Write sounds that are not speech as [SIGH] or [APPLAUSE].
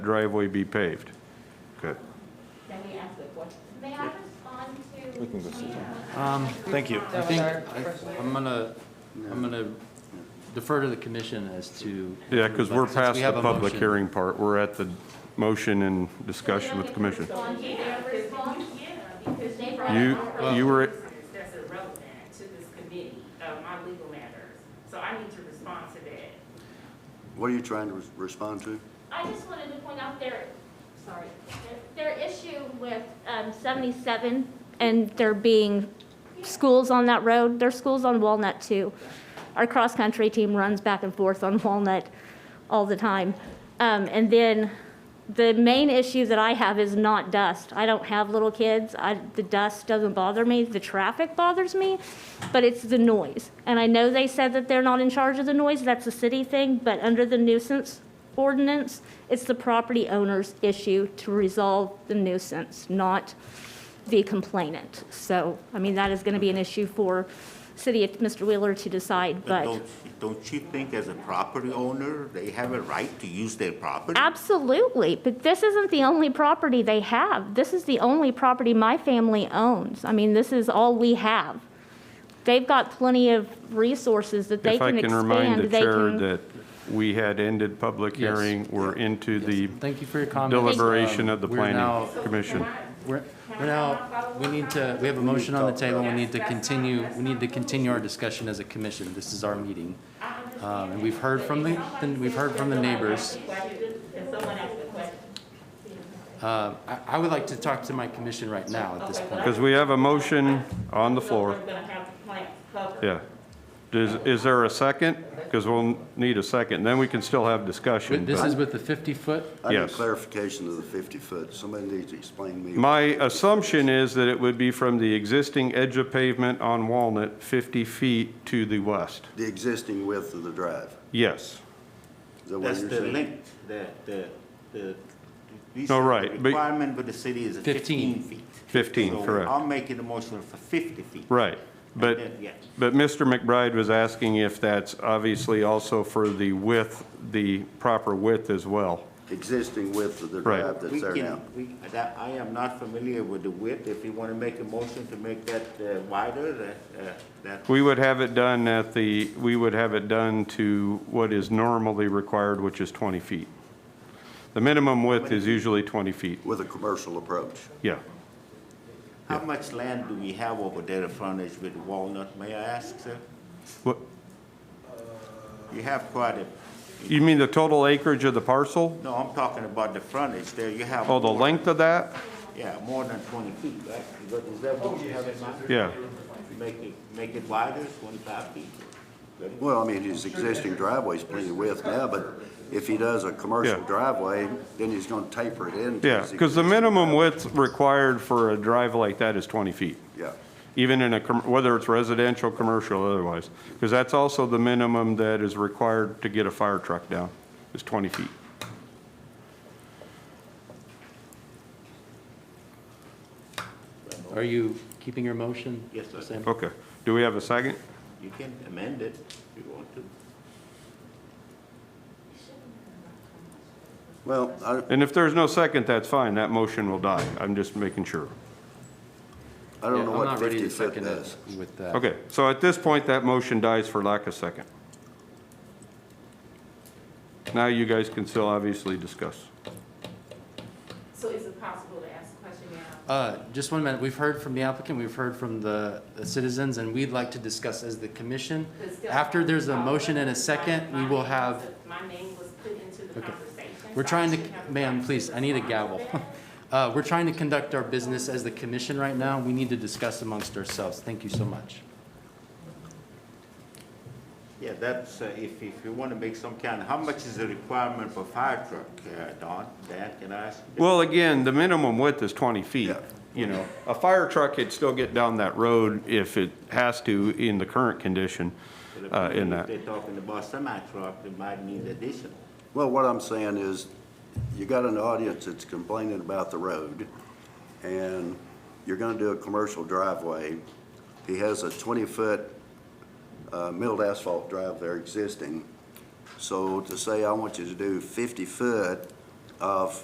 driveway be paved. Okay. Let me ask a question. May I respond to? We can go sit Um, Thank you. I think, I- I'm gonna, I'm gonna defer to the commission as to. Yeah, because we're Since we past the have a public motion. hearing part. We're at the motion and discussion with the commission. Yeah, because you- yeah, because they brought You, up you were, purposes That's irrelevant to this committee, uh, my legal matters. So I need to respond to that. What are you trying to res- respond to? I just wanted to point out their, sorry, their their issue with um, 77 and there being schools on that road, there's schools on Walnut too. Our cross-country team runs back and forth on Walnut all the time. Um, And then the main issue that I have is not dust. I don't have little kids. I, the dust doesn't bother me. The traffic bothers me, but it's the noise. And I know they said that they're not in charge of the noise. That's a city thing, but under the nuisance ordinance, it's the property owner's issue to resolve the nuisance, not the complainant. So, I mean, that is going to be an issue for city, Mr. Wheeler to decide, but But don't, don't you think as a property owner, they have a right to use their property? absolutely. But this isn't the only property they have. This is the only property my family owns. I mean, this is all we have. They've got plenty of resources that they if I can can remind the expand. They chair can, that we had ended public Yes. hearing, we're into the Thank you for your comments. Um, deliberation of the We're now- planning commission. We're, we're now, we need to, we have a motion on the table, we need to continue, we need to continue our discussion as a commission, this is our meeting. Um, and we've heard from the, then we've heard from the neighbors. Can someone ask a question? Uh, I, I would like to talk to my commission right now at this point. Because we have a motion on the floor. Someone's gonna have to plant cover. Yeah. Is, is there a second? Because we'll need a second, then we can still have discussion. This but- is with the fifty-foot I need Yes. clarification of the 50-foot. Somebody needs to explain to me. My assumption is that it would be from the existing edge of pavement on Walnut, 50 feet to the west. The existing width of the drive. Yes. Is that what That's you're the saying? link, the, the, the. these- No, right, but- the Requirement with the city is 15. fifteen feet. 15, So correct. I'm making a motion for fifty feet. Right. But, And then, yeah. but Mr. McBride was asking if that's obviously also for the width, the proper width as well. Existing width of the Right. drive We that's there can- now. we- that- I am not familiar with the width. If you wanna make a motion to make that uh, wider, that, uh, that, We would have it done at the, we would have it done to what is normally required, which is 20 feet. The minimum width is usually 20 feet, With a commercial approach. yeah. how much land do we have over there, the frontage with Walnut, may I ask, sir? What- You have quite a, You mean the total acreage of the parcel? no, I'm talking about the frontage there, you have. Oh, the more- length of that? Yeah, more than twenty feet, right? Is that- Is that what you have in mind? Yeah. Make it, make it wider, twenty-five feet. Well, I mean, his existing driveway's plenty of width now, but if he does a commercial Yeah. driveway, then he's going to taper it in. to Yeah, his because the existing minimum driveway. width required for a drive like that is 20 feet, Yeah, even in a, com- whether it's residential, commercial, otherwise. Because that's also the minimum that is required to get a fire truck down, is 20 feet. Are you keeping your motion? Yes, sir. Sam? Okay. Do we have a second? You can amend it if you want to. well, I, And if there's no second, that's fine, that motion will die. I'm just making sure. I Yeah, don't know I'm what not ready to 50-foot second it does. With that. Okay, so at this point, that motion dies for lack of second. Now you guys can still obviously discuss. So is it possible to ask a question now? Uh, Just one minute. We've heard from the applicant, we've heard from the the citizens, and we'd like to discuss as the commission. After there's a motion and a second, we will have, My name was put into the conversation. we're so I trying should have to, the ma'am, right please, I need a gavel. [LAUGHS] respond to Uh, We're trying to conduct our business as the commission right now. We need to discuss amongst ourselves. Thank you so much. Yeah, that's, uh, if, if you want to make some kind, how much is the requirement for fire truck, uh, Don? Dan, can I ask? you? Well, again, the minimum width is 20 feet. Yeah. You know, a fire truck could still get down that road if it has to in the current condition uh, in If that. they're talking about semi-truck, it might need additional. Well, what I'm saying is, you got an audience that's complaining about the road, and you're gonna do a commercial driveway. He has a 20-foot uh, milled asphalt drive there existing. So to say, I want you to do 50-foot of